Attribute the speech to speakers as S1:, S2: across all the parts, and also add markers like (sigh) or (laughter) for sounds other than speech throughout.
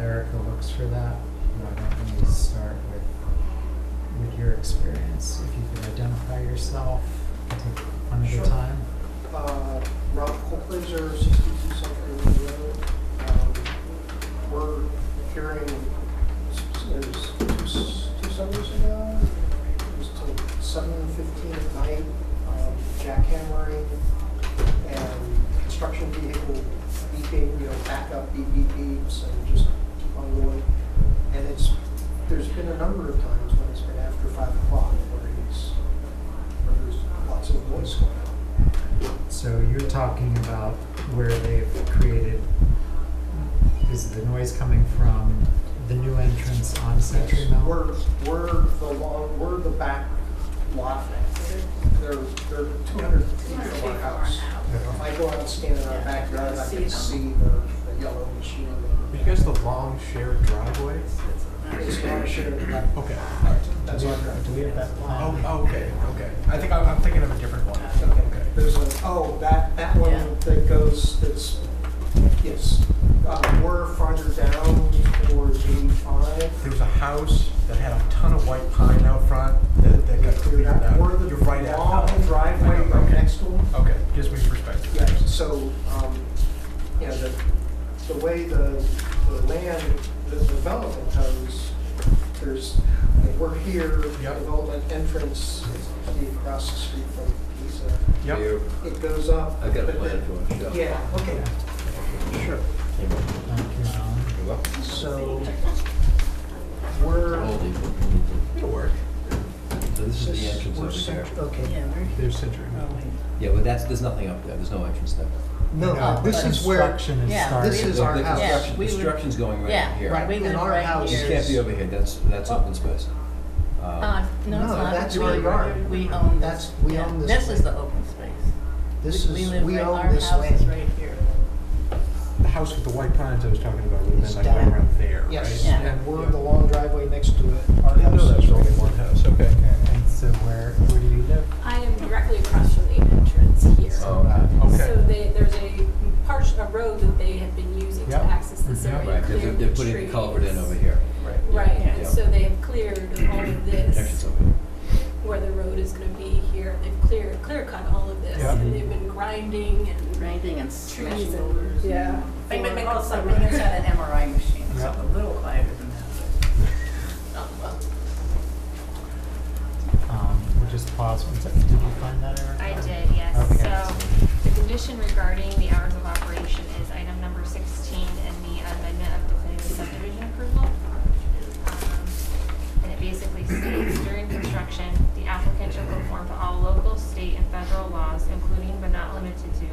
S1: Erica looks for that, why don't we start with, with your experience? If you could identify yourself, take one at
S2: Sure.
S1: a time.
S2: Uh, Ralph Colclaser, 62 South Green Road. Um, We're hearing, it was two s- two summers ago, it was till 7:15 at night, um, jackhammering and construction vehicle beeping, you know, backup beep beep beeps and just keep on going. And it's, there's been a number of times when it's been after 5 o'clock where it's, where there's lots of noise going on.
S1: So you're talking about where they've created, is the noise coming from the new entrance on Century Mill?
S2: We're, we're the long, we're the back lot. They're, they're two hundred feet from our house. If I go out and stand in our backyard, I can see the, the yellow machine.
S3: You guys the long shared driveway?
S2: It's not a shared driveway.
S3: Okay.
S2: That's our driveway.
S1: Do we have that
S3: Oh,
S1: plan?
S3: oh, okay, okay. I think I'm, I'm thinking of a different one.
S2: Okay,
S3: Okay.
S2: there's a, oh, that, that one that goes, that's, yes. Uh, we're farther down towards eighty-five.
S3: There was a house that had a ton of white pine out front that, that got cleared out.
S2: We're
S3: You're
S2: the
S3: right at.
S2: long driveway right next to them.
S3: Okay, gives me perspective.
S2: Yeah, so, um, you know, the, the way the, the land, the development goes, there's, like, we're here,
S3: Yep.
S2: development entrance is actually across the street from Pisa.
S3: Yep.
S2: It goes up.
S4: I've got a
S2: but
S4: plan
S2: then-
S4: if you want to show.
S2: Yeah, okay, sure.
S1: Thank you, Alan.
S4: You're welcome.
S2: So, we're,
S3: It'll work.
S4: So Oh, this is the entrance
S2: we're,
S4: over
S2: cent-
S4: here.
S2: okay.
S3: There's Century
S2: Oh.
S3: Mill.
S4: Yeah, but that's, there's nothing up there, there's no entrance there.
S3: Uh,
S2: No, this
S1: the
S2: is where,
S1: Construction is
S5: Yeah,
S1: started.
S2: this is
S4: The-
S2: our
S4: the
S2: house.
S5: Yeah,
S4: construction-
S5: we would-
S4: Construction's going right
S5: Yeah,
S4: in here.
S2: Right. Oh.
S5: we live
S2: In our
S5: right
S2: house.
S4: This
S5: here.
S4: can't be over here, that's, that's open space.
S2: Ah,
S5: Uh,
S4: Uh,
S5: no, it's
S2: No,
S5: not.
S2: that's
S5: We-
S2: our yard.
S5: We own
S2: That's-
S5: this.
S2: we
S5: yeah,
S2: own this
S5: This is
S2: land.
S5: the open space.
S2: this
S5: We
S2: is,
S5: live
S2: we
S5: right-
S2: own this
S5: Our house is
S2: land.
S5: right here.
S3: The house with the white pines I was talking about would
S2: It's
S3: have been like right
S2: down.
S3: around there, right?
S2: Yes,
S5: Yeah.
S2: and we're the long driveway next to it. Our
S3: I know
S2: house
S3: that's
S2: is
S3: only
S2: right
S3: one house, okay.
S1: And so where, where do you live?
S6: I am directly across from the entrance here.
S4: Oh, okay.
S6: So
S3: Okay.
S6: they, there's a part, a road that they have been using to
S1: Yeah.
S6: access this
S1: Mhm.
S6: area.
S4: Right, they're, they're-
S6: clearing
S4: they're putting the
S6: trees.
S4: culvert in over here. Right.
S6: Right,
S5: Yeah.
S6: and so they have cleared all of
S4: Entrance
S6: this,
S4: over here.
S6: where the road is gonna be here, they've cleared, clear cut all of this,
S3: Yeah.
S6: and they've been grinding and.
S5: Grinding and
S6: Trees
S5: smashing
S6: and,
S5: boulders.
S6: yeah.
S5: Bang, bang, bang, all
S6: For-
S5: summer. It's got an MRI machine, so
S1: Yeah.
S5: a little quieter than that. but Not much.
S1: Um, we'll just pause one second. Did you find that, Erica?
S7: I did,
S1: Okay.
S7: yes. So the condition regarding the hours of operation is item number 16 in the amendment of the plan subdivision approval. Um, And it basically states during construction, the applicant shall conform to all local, state, and federal laws, including but not limited to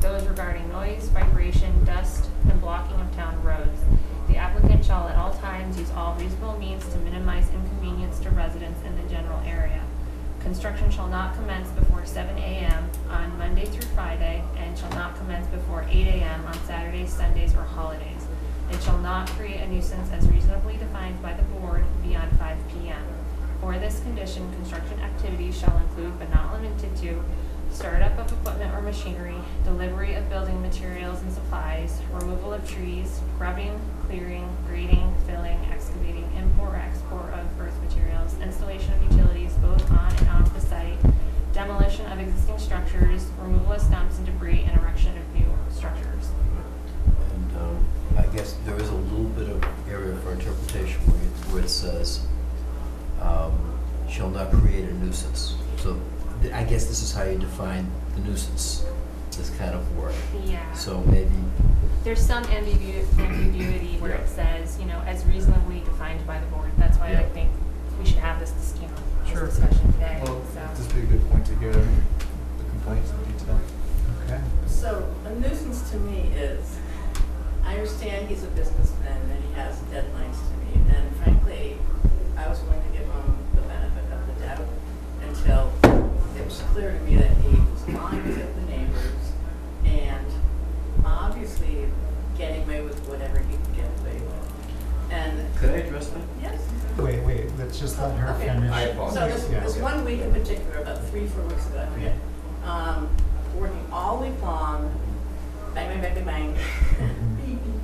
S7: those regarding noise, vibration, dust, and blocking of town roads. The applicant shall at all times use all reasonable means to minimize inconvenience to residents in the general area. Construction shall not commence before seven AM on Monday through Friday and shall not commence before eight AM on Saturdays, Sundays, or holidays. It shall not create a nuisance as reasonably defined by the board beyond five PM. For this condition, construction activities shall include but not limited to startup of equipment or machinery, delivery of building materials and supplies, removal of trees, grubbing, clearing, grading, filling, excavating, import or export of earth materials, installation of utilities both on and off the site, demolition of existing structures, removal of stumps and debris, and erection of new structures.
S4: And um, I guess there is a little bit of area for interpretation where it, where it says, um, shall not create a nuisance. So th- I guess this is how you define the nuisance, this kind of word.
S7: Yeah.
S4: So maybe,
S7: There's some ambigu- ambiguity where
S4: Yeah.
S7: it says, you know, as reasonably defined by the board. That's why I
S4: Yeah.
S7: think we should have this, dis- you know,
S3: Sure.
S7: this discussion today,
S8: Well,
S7: so.
S8: this would be a good point to hear the complaints in detail.
S1: Okay.
S5: So a nuisance to me is, I understand he's a businessman and he has deadlines to meet, and frankly, I was willing to give him the benefit of the doubt until it was clear to me that he was lying to the neighbors and obviously getting away with whatever he could get away with. And,
S4: could I address that?
S5: yes.
S1: Wait, wait, let's just let her
S5: Okay.
S1: finish.
S4: I
S5: So
S4: apologize.
S5: this,
S1: Yeah.
S5: this one week in particular, about three, four weeks ago, I forget,
S4: (laughs)
S5: um, working all week long, bang, bang, bang, bang, bang,